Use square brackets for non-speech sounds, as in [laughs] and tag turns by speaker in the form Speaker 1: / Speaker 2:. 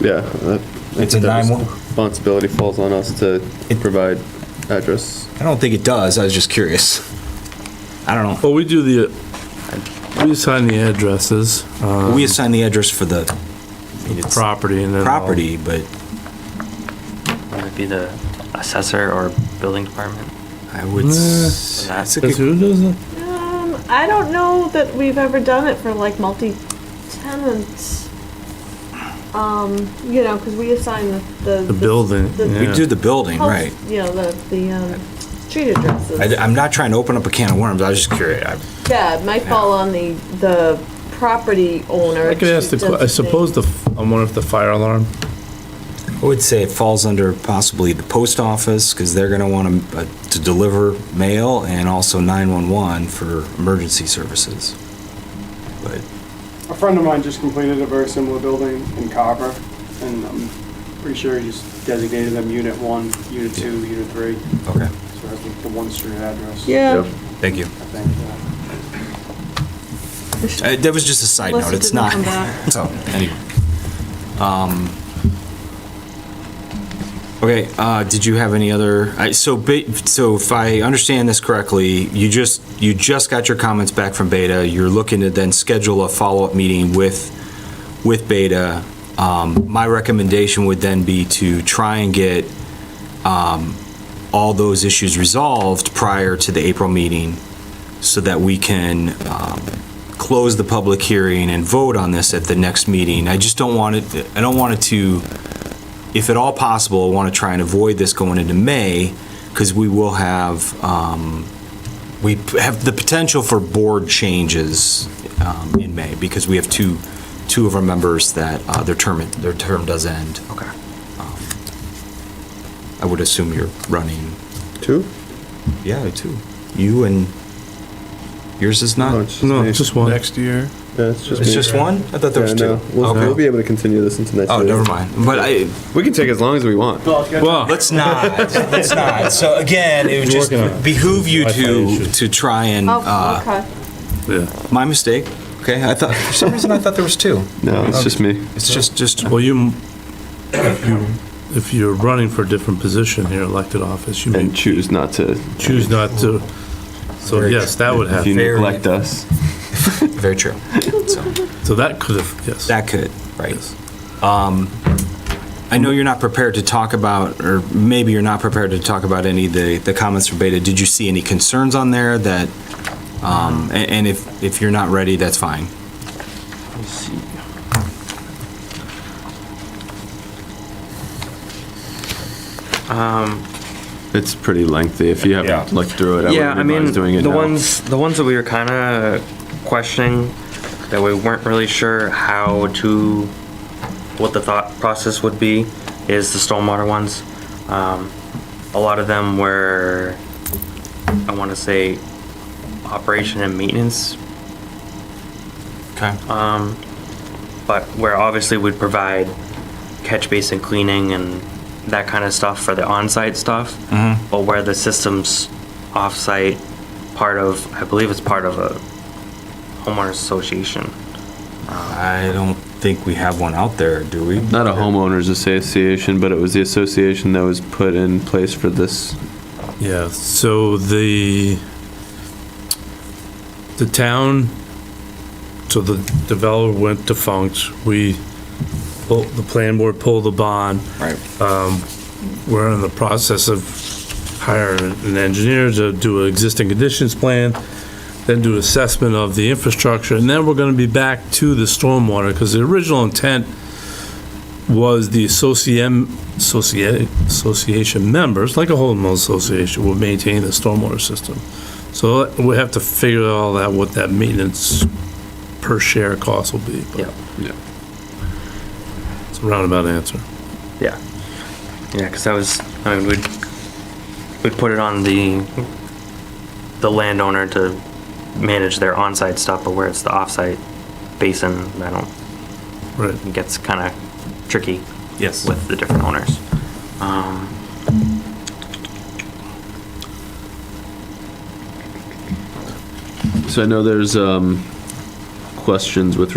Speaker 1: Yeah. that-
Speaker 2: It's a
Speaker 1: that
Speaker 2: 911
Speaker 1: Responsibility falls on us to
Speaker 2: It-
Speaker 1: provide address.
Speaker 2: I don't think it does, I was just curious. I don't
Speaker 3: Well, we do the, we assign the addresses,
Speaker 2: know,
Speaker 3: uh,
Speaker 2: we assign the address Oh, for the, I mean, it's
Speaker 3: property and then. all-
Speaker 2: property, but
Speaker 4: Would it be the assessor or building department?
Speaker 2: I would. s-
Speaker 4: Nah.
Speaker 2: that's a
Speaker 3: Because
Speaker 2: good-
Speaker 3: who does it?
Speaker 5: Um, I don't know that we've ever done it for like multi-tenants. Um, you know, because we assign the. The,
Speaker 3: The building,
Speaker 2: We
Speaker 3: yeah.
Speaker 2: do the building,
Speaker 5: house-
Speaker 2: right?
Speaker 5: You know, the, the, um, street addresses.
Speaker 2: I, am not trying to open up a can of worms, I was just curious. I-
Speaker 5: Yeah, it might fall on the, the property owner.
Speaker 3: I could ask the,
Speaker 5: to
Speaker 3: que- I
Speaker 5: designate.
Speaker 3: suppose the, I wonder if the fire alarm,
Speaker 2: I would say it falls under possibly the post office, because they're gonna want to, to deliver mail, and also 911 for emergency services. But
Speaker 6: A friend of mine just completed a very similar building in Carver, and I'm pretty sure he just designated them Unit 1, Unit 2, Unit 3, so
Speaker 2: Okay,
Speaker 6: it has like the one street address.
Speaker 5: Yeah.
Speaker 2: thank you.
Speaker 6: I think, yeah.
Speaker 2: Uh, That was just a side
Speaker 5: Unless
Speaker 2: note,
Speaker 5: it
Speaker 2: [laughs] it's
Speaker 5: didn't
Speaker 2: not.
Speaker 5: come back.
Speaker 2: So, anyway. Um, Okay, uh, did you have any other, I- so, ba- so if I understand this correctly, you just, you just got your comments back from Beta, you're looking to then schedule a follow-up meeting with, with Beta. Um, My recommendation would then be to try and get um, all those issues resolved prior to the April meeting so that we can um, close the public hearing and vote on this at the next meeting. I just don't want it, I don't want it to, if at all possible, I want to try and avoid this going into May, because we will have, um, we p- have the potential for board changes um, in May, because we have two, two of our members that uh, their term, their term does end. Okay. I would assume you're running,
Speaker 1: Two?
Speaker 2: yeah, two. You and, yours is not?
Speaker 3: no,
Speaker 1: Oh, me.
Speaker 3: just one.
Speaker 7: next year.
Speaker 1: Yeah, it's just
Speaker 2: It's
Speaker 1: me.
Speaker 2: just one? I thought there
Speaker 1: Yeah,
Speaker 2: was
Speaker 1: no,
Speaker 2: two.
Speaker 1: we'll,
Speaker 2: Okay.
Speaker 1: we'll be able to continue this into next
Speaker 2: Oh,
Speaker 1: meeting.
Speaker 2: never mind. But I,
Speaker 1: We can take as long as we want.
Speaker 3: Well,
Speaker 2: let's not, let's not. So again, it would just
Speaker 3: Working on it.
Speaker 2: behoove you
Speaker 3: Wi-Fi
Speaker 2: to,
Speaker 3: issues.
Speaker 2: to try and,
Speaker 5: Oh,
Speaker 2: uh,
Speaker 5: okay.
Speaker 3: yeah.
Speaker 2: my mistake. Okay, I thought, for some reason, I thought there was two.
Speaker 1: No, it's just me.
Speaker 2: It's just, just,
Speaker 3: Well, you, if you, if you're running for a different position here, elected office, you may
Speaker 1: And choose not to.
Speaker 3: choose not to. So
Speaker 2: Very
Speaker 3: yes, that would
Speaker 1: If you
Speaker 3: happen.
Speaker 2: Very-
Speaker 1: neglect us.
Speaker 2: very true. So,
Speaker 3: So that could have, yes.
Speaker 2: that could, right.
Speaker 3: Yes.
Speaker 2: I know you're not prepared to talk about, or maybe you're not prepared to talk about any of the, the comments from Beta. Did you see any concerns on there that, um, a- and if, if you're not ready, that's fine.
Speaker 4: Let me see. Um,
Speaker 1: It's pretty lengthy. If you haven't looked through it, I
Speaker 4: yeah, I
Speaker 1: wouldn't
Speaker 4: mean,
Speaker 1: advise doing it
Speaker 4: the
Speaker 1: now.
Speaker 4: ones, the ones that we were kind of questioning, that we weren't really sure how to, what the thought process would be, is the stormwater ones. Um, a lot of them were, I want to say, operation and maintenance
Speaker 2: Okay.
Speaker 4: but where obviously we'd provide catch basin cleaning and that kind of stuff for the on-site stuff. But where the system's off-site, part of, I believe it's part of a homeowners association.
Speaker 2: I don't think we have one out there, do we?
Speaker 1: Not a homeowners association, but it was the association that was put in place for this.
Speaker 3: Yeah, so the, the town, so the developer went defunct, we, pull- the plan board pulled the bond. Um,
Speaker 2: Right.
Speaker 3: We're in the process of hiring an engineer to do an existing conditions plan, then do assessment of the infrastructure, and then we're gonna be back to the stormwater, because the original intent was the associam, associa- association members, like a homeowners association, will maintain the stormwater system. So we have to figure out all that, what that maintenance per share cost will be. but
Speaker 4: Yeah.
Speaker 1: Yeah.
Speaker 3: It's a roundabout answer.
Speaker 4: Yeah. Yeah, because that was, I mean, we'd, we'd put it on the, the landowner to manage their on-site stuff, but where it's the off-site basin, I don't,
Speaker 3: Right.
Speaker 4: it gets kind of tricky.
Speaker 2: Yes.
Speaker 4: with the different owners. Um,
Speaker 1: So I know there's um, questions with